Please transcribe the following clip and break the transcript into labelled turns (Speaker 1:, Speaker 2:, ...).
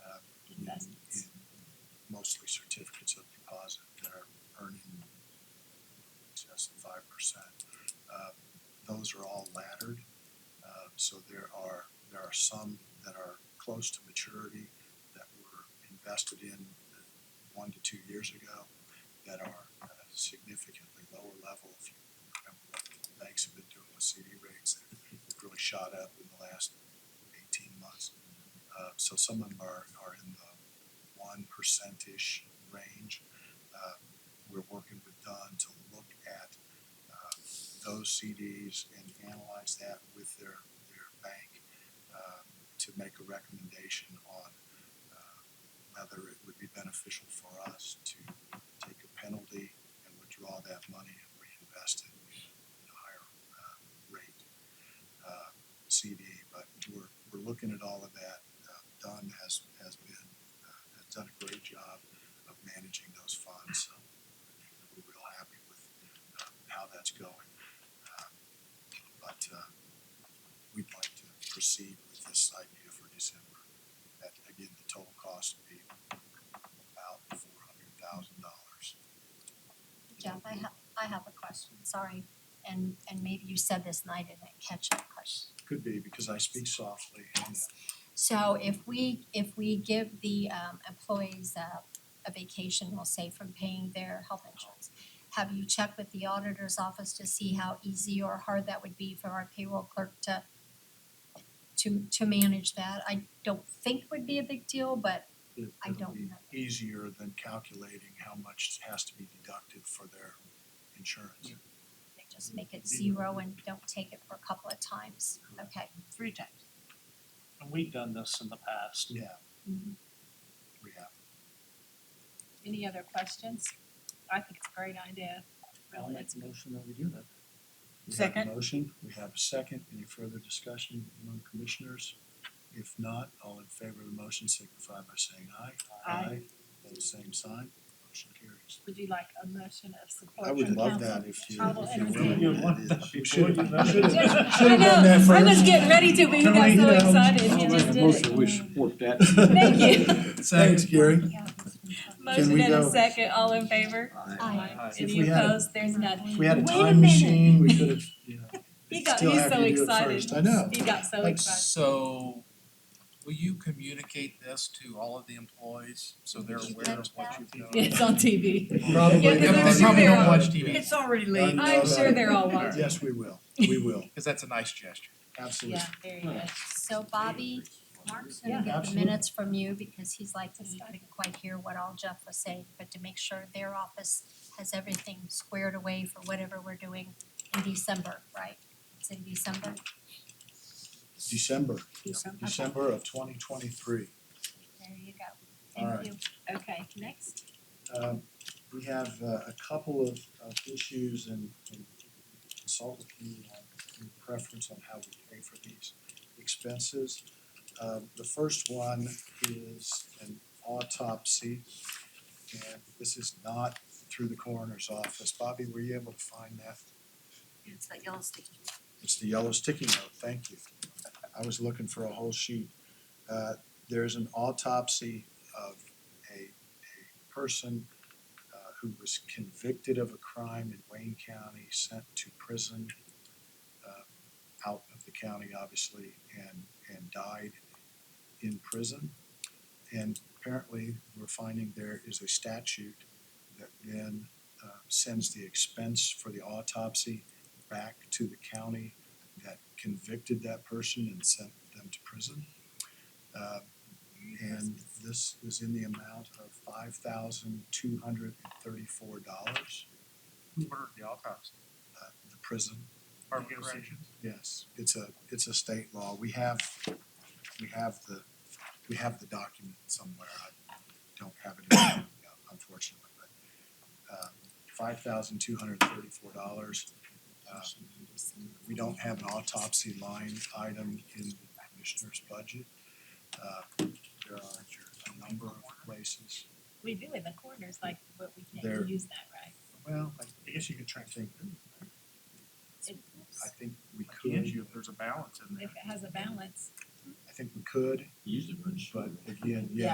Speaker 1: Uh, some that are close to maturity that were invested in one to two years ago that are at a significantly lower level. If you remember what the banks have been doing with CD rates, they've really shot up in the last eighteen months. Uh, so some of them are, are in the one percentish range. Uh, We're working with Don to look at uh, those CDs and analyze that with their, their bank um, to make a recommendation on uh, whether it would be beneficial for us to take a penalty and withdraw that money and reinvest it in a higher uh, rate uh, CD. But we're, we're looking at all of that. Uh, Don has, has been, uh, has done a great job of managing those funds, so we're real happy with uh, how that's going. Um, But uh, we'd like to proceed with this idea for December. That, again, the total cost would be about four hundred thousand dollars.
Speaker 2: Jeff, I have, I have a question, sorry, and, and maybe you said this and I didn't catch that question.
Speaker 1: Could be, because I speak softly and uh,
Speaker 2: So if we, if we give the um employees a, a vacation, we'll say from paying their health insurance, have you checked with the auditor's office to see how easy or hard that would be for our payroll clerk to to, to manage that? I don't think would be a big deal, but
Speaker 1: it-
Speaker 2: I
Speaker 1: it'll
Speaker 2: don't
Speaker 1: be
Speaker 2: know.
Speaker 1: easier than calculating how much has to be deducted for their insurance.
Speaker 2: they just make it zero and don't take it for a couple of times, okay?
Speaker 3: three times. And we've done this in the past.
Speaker 1: Yeah,
Speaker 4: Mm-hmm.
Speaker 1: we have.
Speaker 4: Any other questions? I think it's a great idea,
Speaker 3: I'll
Speaker 4: really,
Speaker 3: make
Speaker 4: it's
Speaker 3: a motion that we do that.
Speaker 1: We have a
Speaker 4: Second.
Speaker 1: Motion, we have a second. Any further discussion among commissioners? If not, all in favor of the motion signify by saying aye.
Speaker 4: Aye.
Speaker 1: Pose same sign, motion carries.
Speaker 4: would you like a motion of support
Speaker 1: I
Speaker 4: from
Speaker 1: would
Speaker 4: council?
Speaker 1: love that if you,
Speaker 4: I will
Speaker 1: if you're
Speaker 4: entertain
Speaker 1: willing.
Speaker 3: You want that
Speaker 1: It is. We
Speaker 3: before you
Speaker 1: should've-
Speaker 3: know.
Speaker 1: should've-
Speaker 3: Yeah,
Speaker 4: I
Speaker 1: should've done that
Speaker 4: know, I was
Speaker 1: first.
Speaker 4: getting ready to, but you got so excited,
Speaker 5: I'll
Speaker 4: you
Speaker 5: make a
Speaker 4: just did
Speaker 5: motion,
Speaker 4: it.
Speaker 5: we support that.
Speaker 4: Thank
Speaker 1: Thanks, Gary.
Speaker 4: Motion
Speaker 1: we
Speaker 4: and a
Speaker 1: go?
Speaker 4: second, all in favor?
Speaker 2: Aye.
Speaker 1: If
Speaker 4: Any
Speaker 1: we had a-
Speaker 4: opposed, there's none.
Speaker 1: If we had a
Speaker 4: Wait a
Speaker 1: time machine, we could have, you know.
Speaker 4: He got,
Speaker 1: still
Speaker 4: he's
Speaker 1: have
Speaker 4: so
Speaker 1: you do it
Speaker 4: excited,
Speaker 1: first. I know.
Speaker 4: he got so
Speaker 6: Like,
Speaker 4: excited.
Speaker 6: so, will you communicate this to all of the employees, so they're
Speaker 2: Did you
Speaker 6: aware of
Speaker 2: catch
Speaker 6: what
Speaker 2: that?
Speaker 6: you've done?
Speaker 4: It's on
Speaker 1: Probably.
Speaker 4: TV. Yeah, 'cause
Speaker 6: They
Speaker 4: I'm
Speaker 6: probably-
Speaker 4: sure
Speaker 6: probably
Speaker 4: they're
Speaker 6: don't
Speaker 4: all-
Speaker 6: watch TV,
Speaker 3: already
Speaker 1: late.
Speaker 4: I'm sure they're all watching.
Speaker 1: Yes, we will, we will,
Speaker 6: cause that's a nice gesture.
Speaker 1: absolutely.
Speaker 4: Yeah, there you go.
Speaker 2: So Bobby, Mark's
Speaker 4: Yeah.
Speaker 2: gonna get the
Speaker 1: Absolutely.
Speaker 2: minutes from you because he's like, he couldn't quite hear what all Jeff was saying, but to make sure their office has everything squared away for whatever we're doing in December, right? It's in December,
Speaker 1: December,
Speaker 4: December.
Speaker 1: December of twenty twenty-three.
Speaker 2: there you go.
Speaker 1: All right.
Speaker 2: Thank you.
Speaker 4: Okay, next.
Speaker 1: Um, we have uh, a couple of, of issues and and consult with you on your preference on how we pay for these expenses. Um, the first one is an autopsy. And this is not through the coroner's office. Bobby, were you able to find that?
Speaker 2: It's that yellow sticky.
Speaker 1: It's the yellow sticky note, thank you. I was looking for a whole sheet. Uh, there's an autopsy of a, a person uh, who was convicted of a crime in Wayne County, sent to prison, uh, out of the county, obviously, and, and died in prison. And apparently, we're finding there is a statute that then, uh, sends the expense for the autopsy back to the county that convicted that person and sent them to prison. Uh, And this is in the amount of five thousand two hundred and thirty-four dollars,
Speaker 6: Who ordered the autopsy?
Speaker 1: the prison,
Speaker 6: Are we corrections?
Speaker 1: yes, it's a, it's a state law, we have, we have the, we have the document somewhere, I don't have it in front of me, unfortunately, but uh, five thousand two hundred and thirty-four dollars. Uh, We don't have an autopsy line item in the commissioner's budget. Uh, There are a number of places,
Speaker 4: We do in the corners, like, but we
Speaker 1: There.
Speaker 4: can't use that, right?
Speaker 1: well, I I guess you could try to think, I think we could,
Speaker 6: you if there's a balance in
Speaker 4: If it has a balance.
Speaker 1: I think we could,
Speaker 5: Usually, we're just-
Speaker 1: but again, yeah,